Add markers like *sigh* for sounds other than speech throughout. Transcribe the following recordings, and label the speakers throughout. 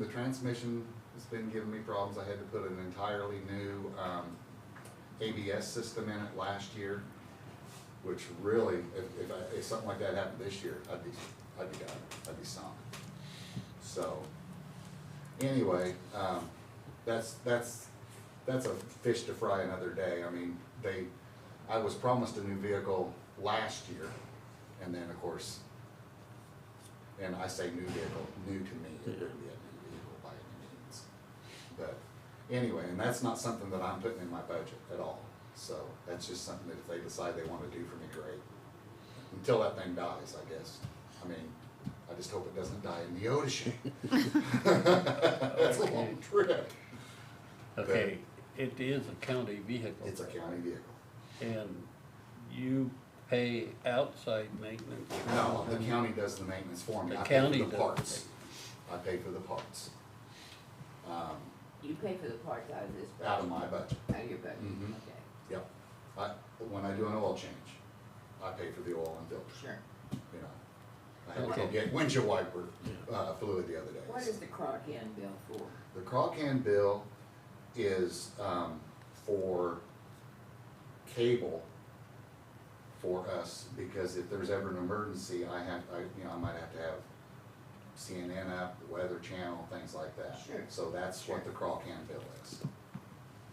Speaker 1: The transmission has been giving me problems. I had to put an entirely new, um, ABS system in it last year, which really, if, if I, if something like that happened this year, I'd be, I'd be done, I'd be sunk. So, anyway, um, that's, that's, that's a fish to fry another day. I mean, they, I was promised a new vehicle last year, and then, of course, and I say new vehicle, new to me, it wouldn't be a new vehicle by any means. But anyway, and that's not something that I'm putting in my budget at all. So that's just something that if they decide they wanna do for me, great. Until that thing dies, I guess. I mean, I just hope it doesn't die in the ocean. That's a long trip.
Speaker 2: Okay, it is a county vehicle.
Speaker 1: It's a county vehicle.
Speaker 2: And you pay outside maintenance?
Speaker 1: No, the county does the maintenance for me.
Speaker 2: The
Speaker 1: I pay for
Speaker 2: county does
Speaker 1: The
Speaker 2: the
Speaker 1: parts. I pay for the parts. Um,
Speaker 3: You pay for the parts out of this budget?
Speaker 1: out of my budget.
Speaker 3: Out of your budget,
Speaker 1: Mhm.
Speaker 3: okay,
Speaker 1: Yep. I, when I do an oil change, I pay for the oil and filters,
Speaker 3: sure.
Speaker 1: you know. I had to go
Speaker 2: Okay.
Speaker 1: get windshield wiper, uh, fluid the other day.
Speaker 3: What is the crock end bill for?
Speaker 1: The crawl can bill is, um, for cable for us, because if there's ever an emergency, I have, I, you know, I might have to have CNN up, the Weather Channel, things like that.
Speaker 3: Sure.
Speaker 1: So that's what the crawl can bill is.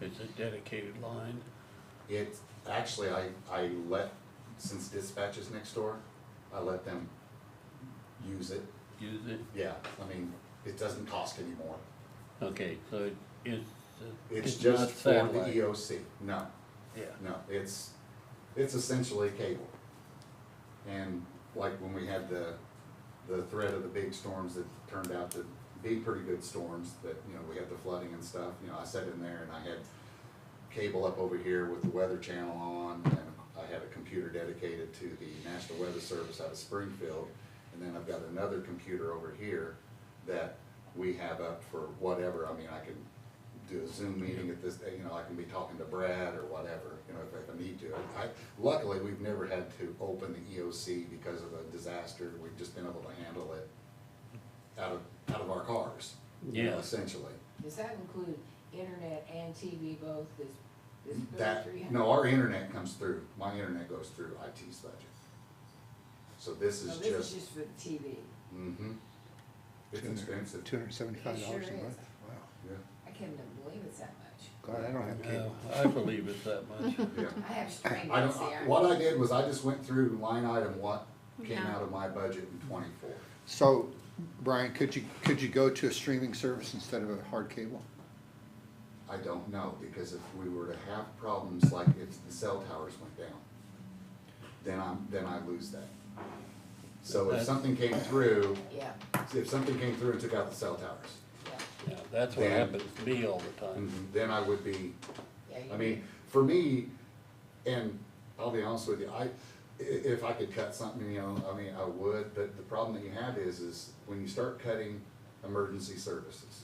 Speaker 2: It's a dedicated line.
Speaker 1: It, actually, I, I let, since dispatch is next door, I let them use it.
Speaker 2: Use it.
Speaker 1: Yeah, I mean, it doesn't cost anymore.
Speaker 2: Okay, so it- uh, it's.
Speaker 1: It's
Speaker 2: not
Speaker 1: just for the
Speaker 2: satellite.
Speaker 1: EOC. No,
Speaker 2: Yeah.
Speaker 1: no, it's, it's essentially cable. And like when we had the, the threat of the big storms that turned out to be pretty good storms, that, you know, we had the flooding and stuff, you know, I sat in there and I had cable up over here with the weather channel on, and I had a computer dedicated to the National Weather Service out of Springfield, and then I've got another computer over here that we have up for whatever, I mean, I can do a Zoom meeting at this, you know, I can be talking to Brad or whatever, you know, if I need to. I, luckily, we've never had to open the EOC because of a disaster, we've just been able to handle it out of, out of our cars, you know,
Speaker 2: Yeah.
Speaker 1: essentially.
Speaker 3: Does that include internet and TV both, this, this bill
Speaker 1: That,
Speaker 3: three hundred?
Speaker 1: no, our internet comes through, my internet goes through IT's budget. So Oh, this
Speaker 3: No,
Speaker 1: is
Speaker 3: this is
Speaker 1: just,
Speaker 3: just for the TV.
Speaker 1: mm-hmm. It's expensive,
Speaker 4: Two hundred and seventy-five dollars a
Speaker 3: It sure
Speaker 4: month,
Speaker 3: is.
Speaker 4: wow,
Speaker 1: yeah,
Speaker 3: I can't even believe it's that much.
Speaker 4: God, I don't have
Speaker 2: No,
Speaker 4: cable.
Speaker 2: I believe it's that much.
Speaker 1: yeah.
Speaker 3: I have strained,
Speaker 1: I
Speaker 3: I
Speaker 1: don't,
Speaker 3: see, I.
Speaker 1: what I did was I just went through line item what came
Speaker 5: Yeah.
Speaker 1: out of my budget in twenty-four.
Speaker 4: So, Brian, could you, could you go to a streaming service instead of a hard cable?
Speaker 1: I don't know, because if we were to have problems like if the cell towers went down, then I'm, then I lose that. So if
Speaker 2: That's-
Speaker 1: something came through,
Speaker 3: Yeah,
Speaker 1: if something came through and took out the cell towers,
Speaker 3: yeah,
Speaker 2: Yeah, That's what
Speaker 1: Yeah.
Speaker 2: happens to me all the time.
Speaker 1: then I would be
Speaker 3: yeah. you
Speaker 1: I mean, for me, and I'll be honest with you, I, i- if I could cut something, you know, I mean, I would, but the problem that you have is, is when you start cutting emergency services,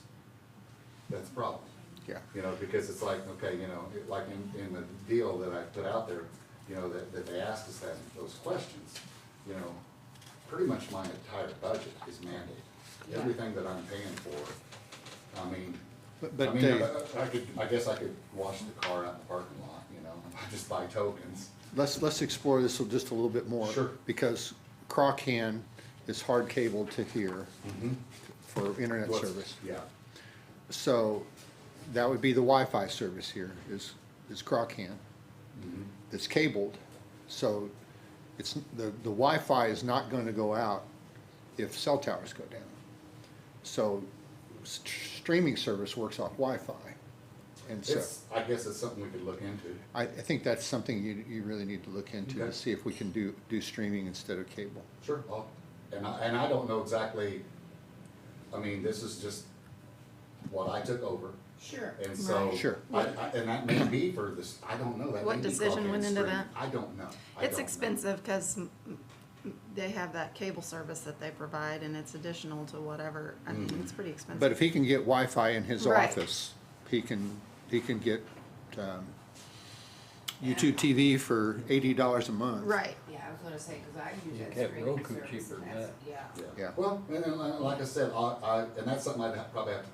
Speaker 1: that's a problem.
Speaker 4: Yeah.
Speaker 1: You know, because it's like, okay, you know, it- like in, in the deal that I put out there, you know, that, that they asked us that, those questions, you know, pretty much my entire budget is mandated.
Speaker 3: Yeah.
Speaker 1: Everything that I'm paying for, I mean,
Speaker 4: But-
Speaker 1: I
Speaker 4: but
Speaker 1: mean,
Speaker 4: Dave-
Speaker 1: I- I could, I guess I could wash the car out in the parking lot, you know, *laughs* I just buy tokens.
Speaker 4: Let's, let's explore this just a little bit more.
Speaker 1: Sure.
Speaker 4: Because Crocan is hard cable to here for internet
Speaker 1: What's-
Speaker 4: service.
Speaker 1: Yeah,
Speaker 4: So, that would be the Wi-Fi service here, is, is Crocan.
Speaker 1: Mm-hmm.
Speaker 4: That's cabled, so it's, the, the Wi-Fi is not gonna go out if cell towers go down. So, s- streaming service works off Wi-Fi, and so.
Speaker 1: it's, I guess it's something we could look into.
Speaker 4: I, I think that's something you, you really need to look into
Speaker 1: Okay.
Speaker 4: to see if we can do, do streaming instead of cable.
Speaker 1: Sure. I'll- And I, and I don't know exactly, I mean, this is just what I took over,
Speaker 3: Sure,
Speaker 1: and so.
Speaker 5: Right.
Speaker 4: Sure.
Speaker 1: I, I, and that may be for this, I don't know, that
Speaker 5: What
Speaker 1: may be
Speaker 5: decision
Speaker 1: Crawdad
Speaker 5: went into
Speaker 1: Stream.
Speaker 5: that?
Speaker 1: I don't know. I don't
Speaker 5: It's
Speaker 1: know.
Speaker 5: expensive because they have that cable service that they provide and it's additional to whatever. I
Speaker 1: Mm.
Speaker 5: mean, it's pretty expensive.
Speaker 4: But if he can get Wi-Fi in his
Speaker 5: Right.
Speaker 4: office, he can, he can get, um, YouTube TV for eighty dollars a month.
Speaker 5: Right.
Speaker 3: Yeah, I was gonna say, cause I use
Speaker 2: You
Speaker 3: that
Speaker 2: get
Speaker 3: streaming
Speaker 2: Roku
Speaker 3: service,
Speaker 2: cheaper
Speaker 3: and
Speaker 2: than
Speaker 3: that's,
Speaker 2: that.
Speaker 3: yeah.
Speaker 4: Yeah.
Speaker 1: Well, and, and like I said, I, I, and that's something I'd ha- probably have to